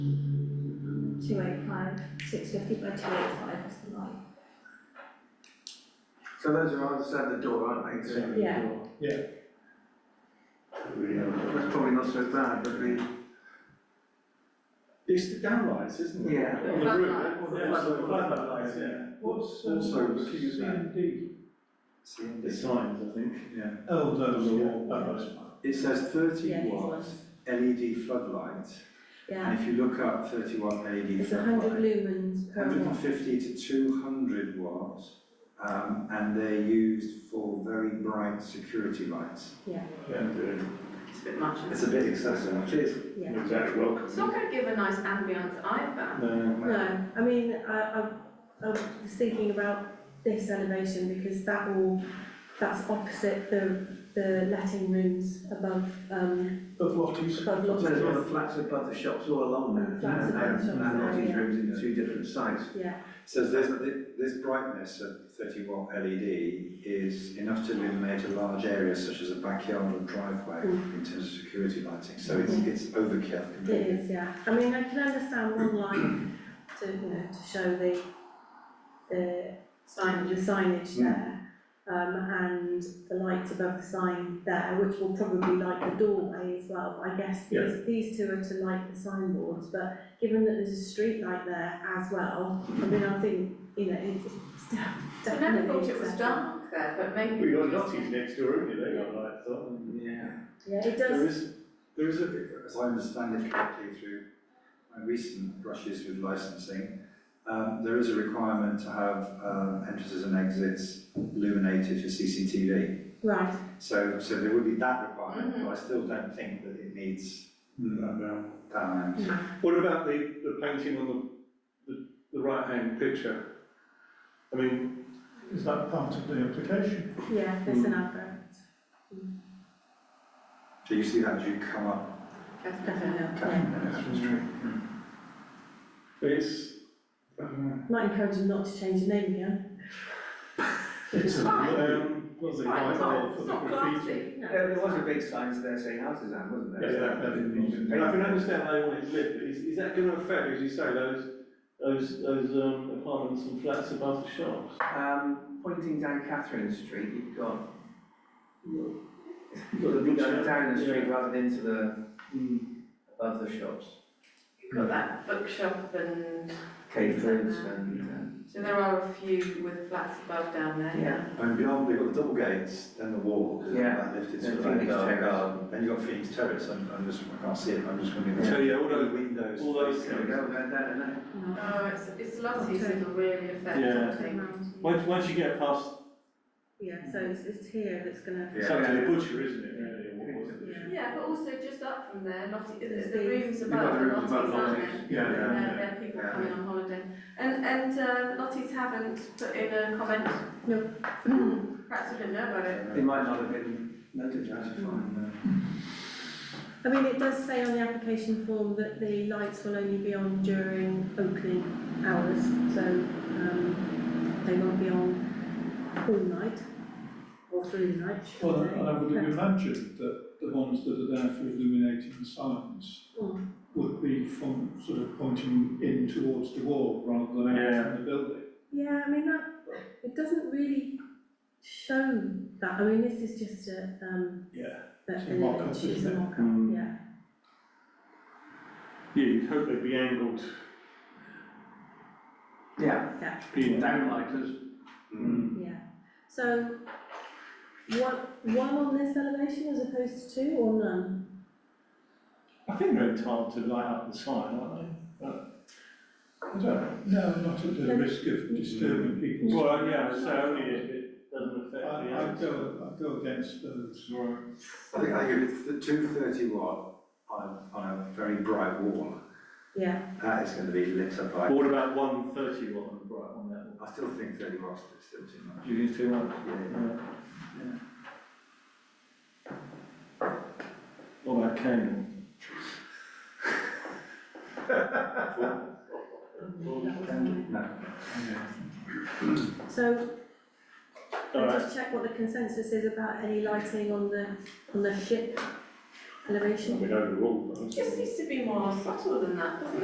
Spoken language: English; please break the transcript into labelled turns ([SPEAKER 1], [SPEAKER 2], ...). [SPEAKER 1] two eight five, six fifty by two eight five is the line.
[SPEAKER 2] So those are on the side of the door, aren't they? So
[SPEAKER 1] Yeah.
[SPEAKER 2] That's probably not so bad, but the,
[SPEAKER 3] It's the downlights, isn't it?
[SPEAKER 2] Yeah.
[SPEAKER 3] On the roof.
[SPEAKER 1] Floodlights.
[SPEAKER 3] Yeah, it's the floodlights, yeah.
[SPEAKER 4] What's
[SPEAKER 3] Also
[SPEAKER 5] um,
[SPEAKER 4] also
[SPEAKER 3] looking at that.
[SPEAKER 4] CND?
[SPEAKER 3] The signs, I think, yeah.
[SPEAKER 4] Oh, those
[SPEAKER 3] Yeah.
[SPEAKER 4] are all, that's fine.
[SPEAKER 5] It says thirty
[SPEAKER 1] Yeah, these
[SPEAKER 5] watt
[SPEAKER 1] ones.
[SPEAKER 2] E
[SPEAKER 5] LED floodlight,
[SPEAKER 1] Yeah,
[SPEAKER 5] and if you look up thirty watt LED
[SPEAKER 1] it's a hundred
[SPEAKER 5] floodlight,
[SPEAKER 1] lumens per
[SPEAKER 5] hundred and
[SPEAKER 1] watt.
[SPEAKER 5] fifty to two hundred watts, um, and they're used for very bright security lights.
[SPEAKER 6] It's a bit much. isn't
[SPEAKER 5] It's a bit excessive.
[SPEAKER 3] It is,
[SPEAKER 1] Yeah.
[SPEAKER 3] exactly,
[SPEAKER 6] it?
[SPEAKER 3] welcome.
[SPEAKER 6] It's not gonna give a nice um, ambience either.
[SPEAKER 3] No.
[SPEAKER 1] No, I mean, I, I, I was thinking about this elevation because that will, that's opposite the, the letting rooms above, um,
[SPEAKER 4] But what is,
[SPEAKER 1] above
[SPEAKER 2] so there's all the
[SPEAKER 1] lodgers.
[SPEAKER 2] flats above the shops all along there.
[SPEAKER 1] Flats above the shops,
[SPEAKER 2] And lodging
[SPEAKER 1] yeah.
[SPEAKER 2] rooms in two different sites.
[SPEAKER 1] Yeah,
[SPEAKER 5] Says this, this brightness of thirty watt LED is enough to illuminate a large area such as a backyard or driveway
[SPEAKER 1] Mm.
[SPEAKER 5] in terms of security lighting, so it's,
[SPEAKER 1] Mhm.
[SPEAKER 5] it's overkill
[SPEAKER 1] it
[SPEAKER 5] completely.
[SPEAKER 1] is, yeah. I mean, I can understand one line to, you know, to show the, the
[SPEAKER 6] Signage
[SPEAKER 1] the signage there. Um, and the lights above the sign there, which will probably light the doorway as well, But I guess these, these two are to light the signboards, but given that there's a street light there as well, I mean, I think, you know, it's it's de-
[SPEAKER 6] I never
[SPEAKER 1] definitely.
[SPEAKER 6] thought it was
[SPEAKER 1] accessible.
[SPEAKER 6] dark there, but maybe.
[SPEAKER 3] We got Notties next door, haven't you, they got lights on.
[SPEAKER 5] Yeah.
[SPEAKER 1] Yeah, it
[SPEAKER 5] There
[SPEAKER 1] does,
[SPEAKER 5] is, there is a, as I understand it correctly through my recent brushes with licensing, um, there is a requirement to have, um, entrances and exits illuminated for CCTV.
[SPEAKER 1] right,
[SPEAKER 5] So, so there would be that requirement,
[SPEAKER 6] Mhm.
[SPEAKER 5] but I still don't think that it needs
[SPEAKER 3] No, no.
[SPEAKER 5] that amount.
[SPEAKER 3] What about the, the painting on the, the, the right-hand picture? I mean,
[SPEAKER 4] is that part of the application?
[SPEAKER 1] yeah, there's an advert,
[SPEAKER 5] Do you see that as you come up?
[SPEAKER 1] definitely, yeah.
[SPEAKER 5] Captain?
[SPEAKER 3] it's, um,
[SPEAKER 1] Might encourage them not to change the name again.
[SPEAKER 6] It's fine.
[SPEAKER 3] Um, was
[SPEAKER 6] It's
[SPEAKER 3] it
[SPEAKER 6] fine,
[SPEAKER 3] quite
[SPEAKER 6] it's
[SPEAKER 3] well
[SPEAKER 6] not,
[SPEAKER 3] for
[SPEAKER 6] it's
[SPEAKER 3] the
[SPEAKER 6] not
[SPEAKER 3] graffiti?
[SPEAKER 6] glassy.
[SPEAKER 2] There, there was a big sign there saying artisan, wasn't
[SPEAKER 3] Yeah,
[SPEAKER 2] there?
[SPEAKER 3] that, that didn't need to be. And I can understand they want it lit, but is, is that gonna affect, as you say, those, those, those um, apartments and flats above the shops?
[SPEAKER 2] Um, pointing down Catherine Street, you've got,
[SPEAKER 3] You've got the
[SPEAKER 2] you're
[SPEAKER 3] bookshop,
[SPEAKER 2] going down the street
[SPEAKER 3] yeah.
[SPEAKER 2] rather than into the,
[SPEAKER 3] Mm.
[SPEAKER 2] above the shops.
[SPEAKER 6] You've got that bookshop and,
[SPEAKER 2] Caterers and,
[SPEAKER 6] so there are a few with flats above down there, yeah.
[SPEAKER 5] And beyond, they've got the double gates, then the wall, and
[SPEAKER 2] Yeah.
[SPEAKER 5] that lifted
[SPEAKER 2] Then
[SPEAKER 5] sort of like
[SPEAKER 2] Phoenix
[SPEAKER 5] garden,
[SPEAKER 2] Terrace.
[SPEAKER 5] garden. Then you've got Phoenix Terrace, I'm, I'm just, I can't see it, I'm just wondering.
[SPEAKER 3] So, yeah, all
[SPEAKER 5] The
[SPEAKER 3] those,
[SPEAKER 5] windows.
[SPEAKER 3] all those
[SPEAKER 2] uh, there we
[SPEAKER 3] things.
[SPEAKER 2] go, there, there, and there.
[SPEAKER 6] Oh, it's, it's Lottie's
[SPEAKER 1] Okay.
[SPEAKER 6] that'll really
[SPEAKER 3] Yeah.
[SPEAKER 6] affect, I think.
[SPEAKER 3] Once, once you get past,
[SPEAKER 1] Yeah, so it's, it's here that's gonna,
[SPEAKER 3] it's up to the butcher, isn't it, really, or what was it?
[SPEAKER 1] Yeah.
[SPEAKER 6] Yeah, but also just up from there, Lottie,
[SPEAKER 1] There's
[SPEAKER 6] the, the rooms
[SPEAKER 5] You've
[SPEAKER 6] above
[SPEAKER 5] got
[SPEAKER 6] are
[SPEAKER 5] the rooms above
[SPEAKER 6] Lottie's, aren't they?
[SPEAKER 5] Lotties.
[SPEAKER 4] Yeah,
[SPEAKER 6] They're,
[SPEAKER 3] yeah,
[SPEAKER 6] they're people
[SPEAKER 5] Yeah.
[SPEAKER 6] coming on holiday. And, and, uh, Lottie's haven't put in a comment.
[SPEAKER 1] No.
[SPEAKER 6] Perhaps we didn't know about it.
[SPEAKER 2] They might not have been notified.
[SPEAKER 1] I mean, it does say on the application form that the lights will only be on during opening hours, so, um, they won't be on all night or through the night, should
[SPEAKER 4] Well,
[SPEAKER 1] I say.
[SPEAKER 4] and I would have imagined that the ones that are there for illuminating the signs
[SPEAKER 1] Mm.
[SPEAKER 4] would be from sort of pointing in towards the wall rather than out
[SPEAKER 3] Yeah.
[SPEAKER 4] from the building.
[SPEAKER 1] Yeah, I mean, that, it doesn't really show that, I mean, this is just a, um,
[SPEAKER 4] Yeah.
[SPEAKER 1] a-
[SPEAKER 4] It's a
[SPEAKER 1] an
[SPEAKER 4] mock-up,
[SPEAKER 1] image, it's a
[SPEAKER 4] isn't it?
[SPEAKER 1] mock-up,
[SPEAKER 3] Mm.
[SPEAKER 1] yeah.
[SPEAKER 3] Yeah, you'd hope they'd be angled,
[SPEAKER 2] Yeah,
[SPEAKER 3] being
[SPEAKER 2] downlighters.
[SPEAKER 5] Mm.
[SPEAKER 1] Yeah, so one, one on this elevation as opposed to two or none?
[SPEAKER 4] I think they're entitled to light up the sign, aren't they? But, I don't know. No, not at the
[SPEAKER 1] No.
[SPEAKER 4] risk of disturbing people's.
[SPEAKER 3] Well, yeah, so only if it doesn't
[SPEAKER 4] I,
[SPEAKER 3] affect the
[SPEAKER 4] I
[SPEAKER 3] others.
[SPEAKER 4] go, I go against those.
[SPEAKER 5] I think, I think if it's the two thirty watt on, a- on a very bright wall,
[SPEAKER 1] Yeah,
[SPEAKER 5] that is gonna be lit up by,
[SPEAKER 3] But what about one thirty watt on the bright on that?
[SPEAKER 5] I still think thirty watts is still too much.
[SPEAKER 3] Do you think too much?
[SPEAKER 5] Yeah.
[SPEAKER 3] What about Canaan?
[SPEAKER 1] that was mine.
[SPEAKER 5] No.
[SPEAKER 1] So, can I
[SPEAKER 3] Alright,
[SPEAKER 1] just check what the consensus is about any lighting on the, on the ship elevation?
[SPEAKER 3] we know the rule, but I'm
[SPEAKER 6] é It just needs to be more subtle than that, doesn't it?